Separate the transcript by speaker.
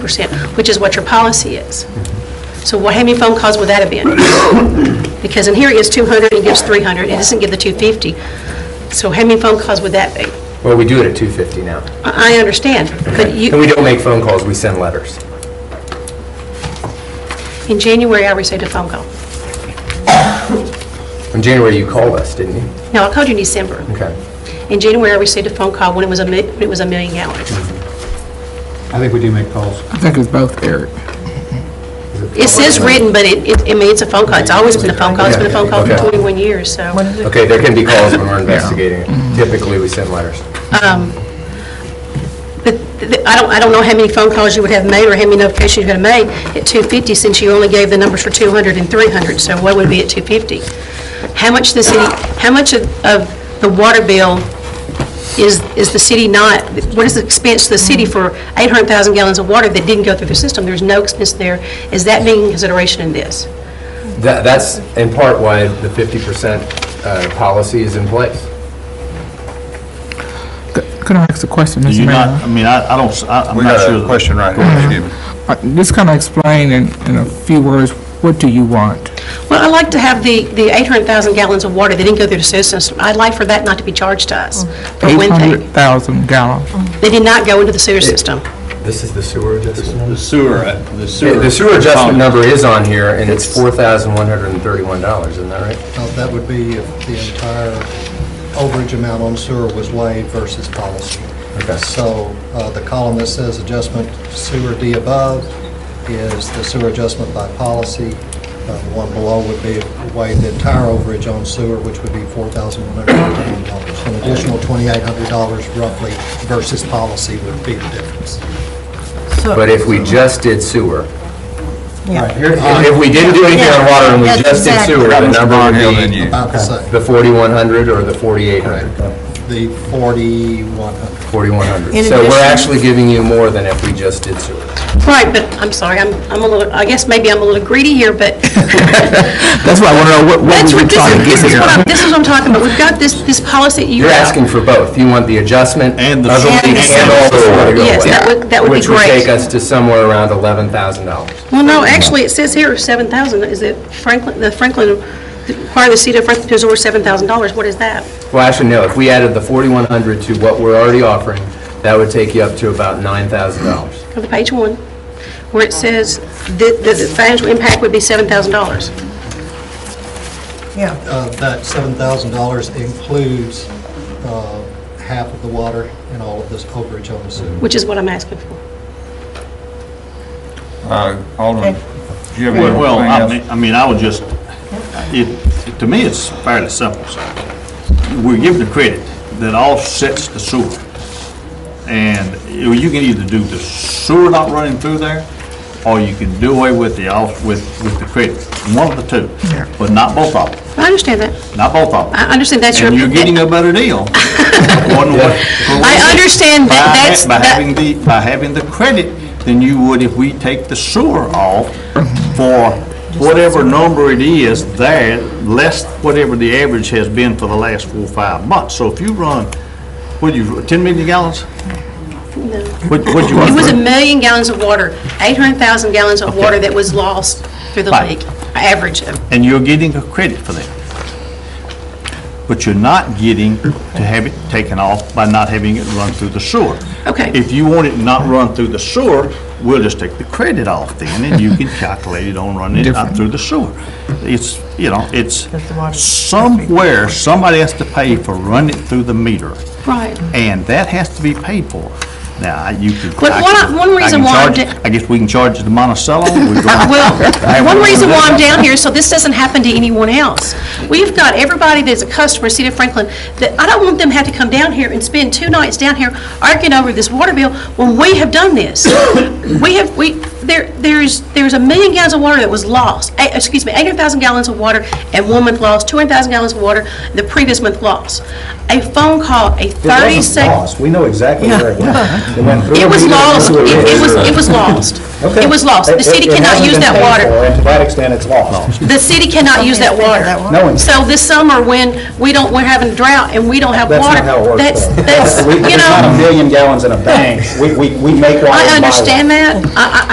Speaker 1: percent, which is what your policy is. So what, how many phone calls would that have been? Because in here it gives 200, it gives 300, it doesn't give the 250. So how many phone calls would that be?
Speaker 2: Well, we do it at 250 now.
Speaker 1: I I understand, but
Speaker 2: And we
Speaker 1: you,
Speaker 2: don't make phone calls, we send letters.
Speaker 1: in January, I received a phone call.
Speaker 2: In January, you called us, didn't you?
Speaker 1: No, I called you in December.
Speaker 2: Okay.
Speaker 1: In January, I received a phone call when it was a, mi- when it was a million gallons.
Speaker 3: I think we do make calls.
Speaker 4: I think it's both, Eric.
Speaker 1: It says written, but it, it- I mean, it's a phone call, it's always been a phone call, it's been a phone call for
Speaker 2: Okay.
Speaker 1: 21 years, so.
Speaker 2: Okay, there can be calls when we're investigating
Speaker 5: Mm-hmm.
Speaker 2: it. Typically, we send letters.
Speaker 1: But th- th- I don't, I don't know how many phone calls you would have made or how many notifications you would have made at 250, since you only gave the numbers for 200 and 300, so what would be at 250? How much the city, how much of of the water bill is, is the city not, what is the expense to the city for 800,000 gallons of water that didn't go through the system? There's no expense there. Is that being consideration in this?
Speaker 2: That, that's in part why the 50% uh, policy is in place.
Speaker 4: Could I ask a question,
Speaker 6: Do
Speaker 4: Mr.
Speaker 6: you not, I
Speaker 4: Mayor?
Speaker 6: mean, I, I don't, s- I- I'm
Speaker 7: We
Speaker 6: not
Speaker 7: got a
Speaker 6: sure.
Speaker 7: question right here.
Speaker 4: Uh, Just kind of explain in, in a few words, what do you want?
Speaker 1: Well, I'd like to have the, the 800,000 gallons of water that didn't go through the system, I'd like for that not to be charged to us, for one thing.
Speaker 4: 800,000 gallons.
Speaker 1: They did not go into the sewer system.
Speaker 2: This is the sewer adjustment?
Speaker 6: The sewer, uh, the sewer.
Speaker 2: The sewer adjustment
Speaker 6: Um,
Speaker 2: number is on here, and it's $4,131, isn't that right?
Speaker 8: Now, That would be if the entire overage amount on sewer was waived versus policy.
Speaker 2: Okay.
Speaker 8: So uh, the column that says adjustment sewer D above is the sewer adjustment by policy. Uh, The one below would be waive the entire overage on sewer, which would be $4,110. An additional $2,800 roughly versus policy would be the difference.
Speaker 2: But if we just did sewer,
Speaker 8: Right.
Speaker 2: if if we didn't do anything on water and we
Speaker 5: Um, Yeah,
Speaker 2: just did
Speaker 5: exactly.
Speaker 2: sewer, the number would
Speaker 7: Hill than
Speaker 2: be
Speaker 7: you.
Speaker 8: About the same,
Speaker 2: the 4,100 or the 4,800?
Speaker 8: the 4,100.
Speaker 2: 4,100.
Speaker 5: In
Speaker 2: So we're
Speaker 5: addition-
Speaker 2: actually giving you more than if we just did sewer.
Speaker 1: Right, but, I'm sorry, I'm, I'm a little, I guess maybe I'm a little greedy here, but
Speaker 4: That's why I want to know what, what
Speaker 1: that's,
Speaker 4: we were
Speaker 1: what-
Speaker 4: trying to
Speaker 1: this
Speaker 4: get
Speaker 1: is, this is
Speaker 4: here.
Speaker 1: what I'm, this is what I'm talking about. We've got this, this policy that you
Speaker 2: You're
Speaker 1: have.
Speaker 2: asking for both. You want the adjustment
Speaker 6: And
Speaker 2: of
Speaker 6: the-
Speaker 2: the leak and all the water to go away.
Speaker 1: Yes, that would- that would be
Speaker 2: Which would
Speaker 1: great.
Speaker 2: take us to somewhere around $11,000.
Speaker 1: Well, no, actually, it says here 7,000, is it Franklin, the Franklin, require the city of Franklin to absorb $7,000, what is that?
Speaker 2: Well, actually, no, if we added the 4,100 to what we're already offering, that would take you up to about $9,000.
Speaker 1: Go to page one, where it says that, that the financial impact would be $7,000.
Speaker 5: Yeah,
Speaker 8: Uh, That $7,000 includes uh, half of the water and all of this overage on the sewer.
Speaker 1: Which is what I'm asking for.
Speaker 7: Uh, Alderman, do you have anything
Speaker 6: Well, well, I
Speaker 7: else?
Speaker 6: mean, I mean, I would just, it, to me, it's fairly simple. We're given the credit that offsets the sewer. And you you can either do the sewer not running through there, or you can do away with the off, with, with the credit. One of the two, but not both of them,
Speaker 1: I understand that.
Speaker 6: not both of
Speaker 1: I
Speaker 6: them.
Speaker 1: understand that's your.
Speaker 6: And you're getting a better deal. One way-
Speaker 1: I understand
Speaker 6: By
Speaker 1: that,
Speaker 6: ha-
Speaker 1: that's.
Speaker 6: By
Speaker 1: that-
Speaker 6: having the, by having the credit than you would if we take the sewer off for whatever number it is there, less whatever the average has been for the last four, or five months. So if you run, what do you, 10 million gallons? What, what you run?
Speaker 1: It was a
Speaker 6: through?
Speaker 1: million gallons of water, 800,000 gallons of water
Speaker 6: Okay.
Speaker 1: that was lost through the
Speaker 6: Right.
Speaker 1: leak, average of.
Speaker 6: And you're getting a credit for that. But you're not getting to have it taken off by not having it run through the sewer.
Speaker 1: Okay.
Speaker 6: If you want it not run through the sewer, we'll just take the credit off then, and you can calculate it on running it out through the sewer. It's, you know, it's somewhere, somebody has to pay for running it through the meter,
Speaker 1: Right.
Speaker 6: and that has to be paid for. Now, I- you could.
Speaker 1: But
Speaker 6: I
Speaker 1: one-
Speaker 6: could-
Speaker 1: one
Speaker 6: I can
Speaker 1: reason why I'm
Speaker 6: charge-
Speaker 1: di-
Speaker 6: I guess we can charge it to Monticello. we go-
Speaker 1: Well,
Speaker 6: Hey,
Speaker 1: one
Speaker 6: we're
Speaker 1: reason
Speaker 6: gonna
Speaker 1: why
Speaker 6: do
Speaker 1: I'm
Speaker 6: that.
Speaker 1: down here is so this doesn't happen to anyone else. We've got everybody that's a customer, City of Franklin, that I don't want them to have to come down here and spend two nights down here arguing over this water bill when we have done this. We have, we, th- there, there's, there's a million gallons of water that was lost, eh, excuse me, 800,000 gallons of water and one month lost, 200,000 gallons of water the previous month lost. A phone call, a 30 second.
Speaker 6: We know exactly where it went. It went through.
Speaker 1: It was
Speaker 6: we know
Speaker 1: lost,
Speaker 6: who
Speaker 1: it it was,
Speaker 6: is.
Speaker 1: it was lost.
Speaker 6: Okay.
Speaker 1: It was lost. The
Speaker 6: It-
Speaker 1: city
Speaker 6: it- it
Speaker 1: cannot
Speaker 6: hasn't
Speaker 1: use
Speaker 6: been
Speaker 1: that
Speaker 6: paid
Speaker 1: water.
Speaker 6: for, And to that extent, it's lost.
Speaker 1: The city cannot use that water.
Speaker 6: No one-
Speaker 1: So this summer, when we don't, we're having a drought and we don't have
Speaker 6: That's
Speaker 1: water.
Speaker 6: not how it works.
Speaker 1: That's,
Speaker 6: though.
Speaker 1: that's,
Speaker 6: We-
Speaker 1: you
Speaker 6: There's not a
Speaker 1: know,
Speaker 6: million gallons in a bank. We, we, we make water. and buy
Speaker 1: I
Speaker 6: water.
Speaker 1: understand that. I, I,